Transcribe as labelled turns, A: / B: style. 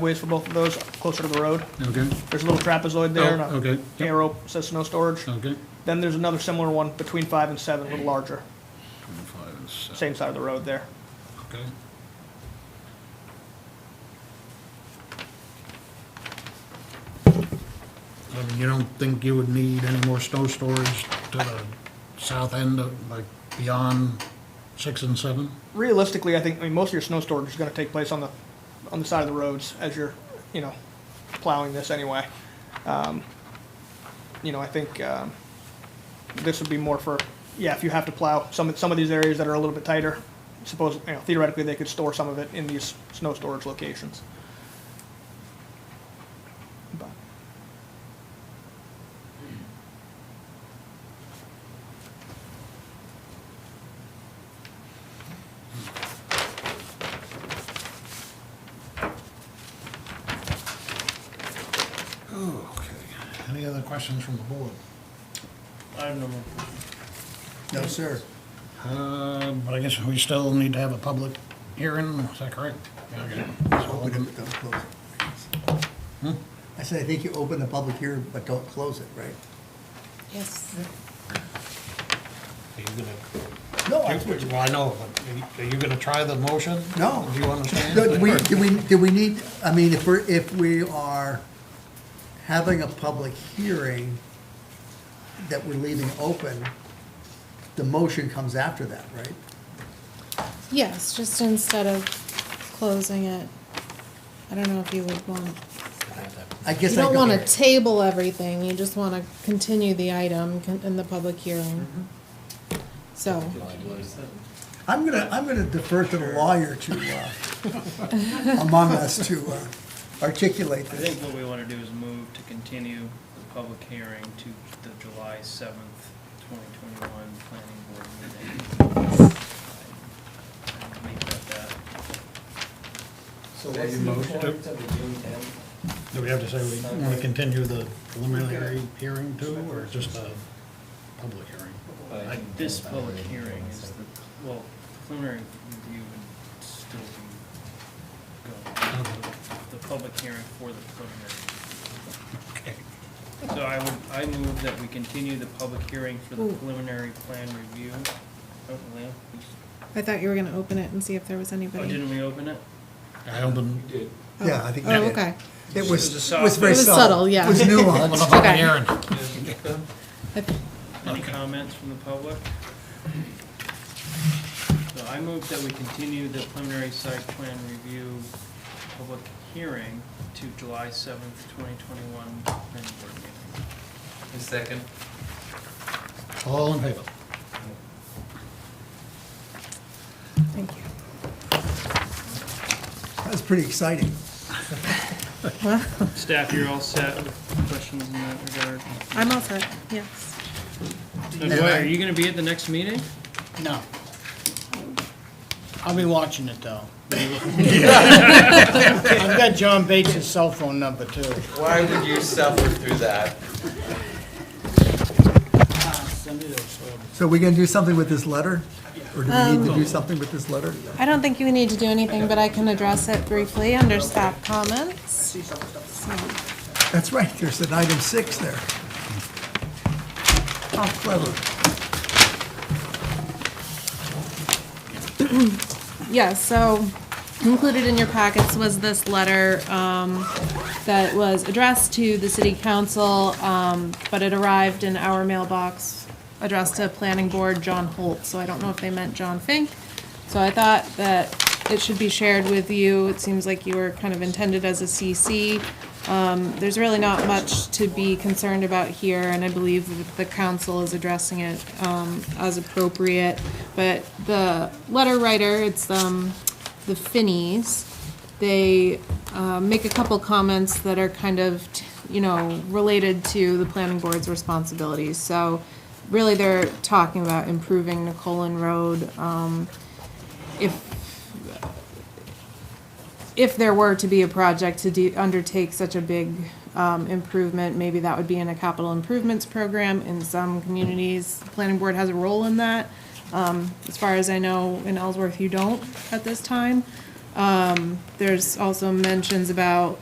A: ways for both of those, closer to the road.
B: Okay,
A: There's a little trapezoid there, and
B: Oh, okay.
A: a arrow says snow storage.
B: okay.
A: Then there's another similar one between five and seven, a little larger,
B: Twenty-five and seven,
A: same side of the road there.
B: okay. I mean, you don't think you would need any more snow storage to the south end of, like, beyond six and seven?
A: Realistically, I think, I mean, most of your snow storage is gonna take place on the, on the side of the roads as you're, you know, plowing this anyway. Um, You know, I think, um, this would be more for, yeah, if you have to plow some, some of these areas that are a little bit tighter, suppose, you know, theoretically, they could store some of it in these snow storage locations. But
B: Okay. Any other questions from the board?
C: I have no more. No, sir.
B: Uh, but I guess we still need to have a public hearing, is that correct? Okay. So,
C: Open it, but don't close it. I said, I think you open the public hearing, but don't close it, right?
D: Yes.
B: Are you gonna
C: No,
B: Well, I know, but are you gonna try the motion?
C: No.
B: Do you understand?
C: Do we, do we, do we need, I mean, if we're, if we are having a public hearing that we're leaving open, the motion comes after that, right?
D: Yes, just instead of closing it, I don't know if you would want,
C: I guess
D: you
C: I
D: don't want to
C: go-
D: table everything, you just want to continue the item con- in the public hearing. So,
C: I'm gonna, I'm gonna defer to the lawyer to, uh, among us to uh, articulate
E: I
C: this.
E: think what we want to do is move to continue the public hearing to the July seventh, twenty twenty-one planning board meeting. I'd Make that that.
F: So what's the point of the June tenth?
B: Do we have to say we wanna continue the preliminary hearing too, or just a public hearing?
E: But This public hearing is the, well, preliminary review would still be going, the public hearing for the preliminary.
B: Okay.
E: So I would, I move that we continue the public hearing for the
D: Ooh.
E: preliminary plan review. Oh, Leo,
D: I thought you were gonna open it and see if there was
E: oh,
D: anybody.
E: didn't we open it?
B: I open,
F: You did.
C: Yeah, I think
D: Oh, okay,
C: It
E: It was a
C: was, it
E: soft-
C: was very
D: It was
C: subtle.
D: subtle, yeah.
C: It was
B: open the
C: nuanced.
B: public
D: Okay.
B: hearing.
E: Any comments from the public? So I move that we continue the preliminary site plan review public hearing to July seventh, twenty twenty-one, planning board meeting.
F: A second.
B: All in favor?
D: thank you.
C: That was pretty exciting.
D: Well,
E: Staff, you're all set with questions in that regard?
D: I'm all set, yes.
E: Now, Dwight, are you gonna be at the next meeting?
G: No. I'll be watching it, though. I've got John Bates' cell phone number, too.
F: Why would you suffer through that?
C: So we gonna do something with this letter? Or do we need to do something with this letter?
D: I don't think you need to do anything, but I can address it briefly under staff comments.
C: That's right, there's an item six there. How clever.
D: Yes, so included in your packets was this letter um, that was addressed to the city council, um, but it arrived in our mailbox addressed to planning board John Holt, so I don't know if they meant John Fink. So I thought that it should be shared with you. It seems like you were kind of intended as a CC. Um, There's really not much to be concerned about here, and I believe that the council is addressing it um, as appropriate. But the letter writer, it's um, the Finneys, they uh, make a couple comments that are kind of, t- you know, related to the planning board's responsibilities. So really, they're talking about improving Nicolin Road. um, If if there were to be a project to do, undertake such a big um, improvement, maybe that would be in a capital improvements program. In some communities, the planning board has a role in that. Um, As far as I know, in Ellsworth, you don't at this time. Um, There's also mentions about,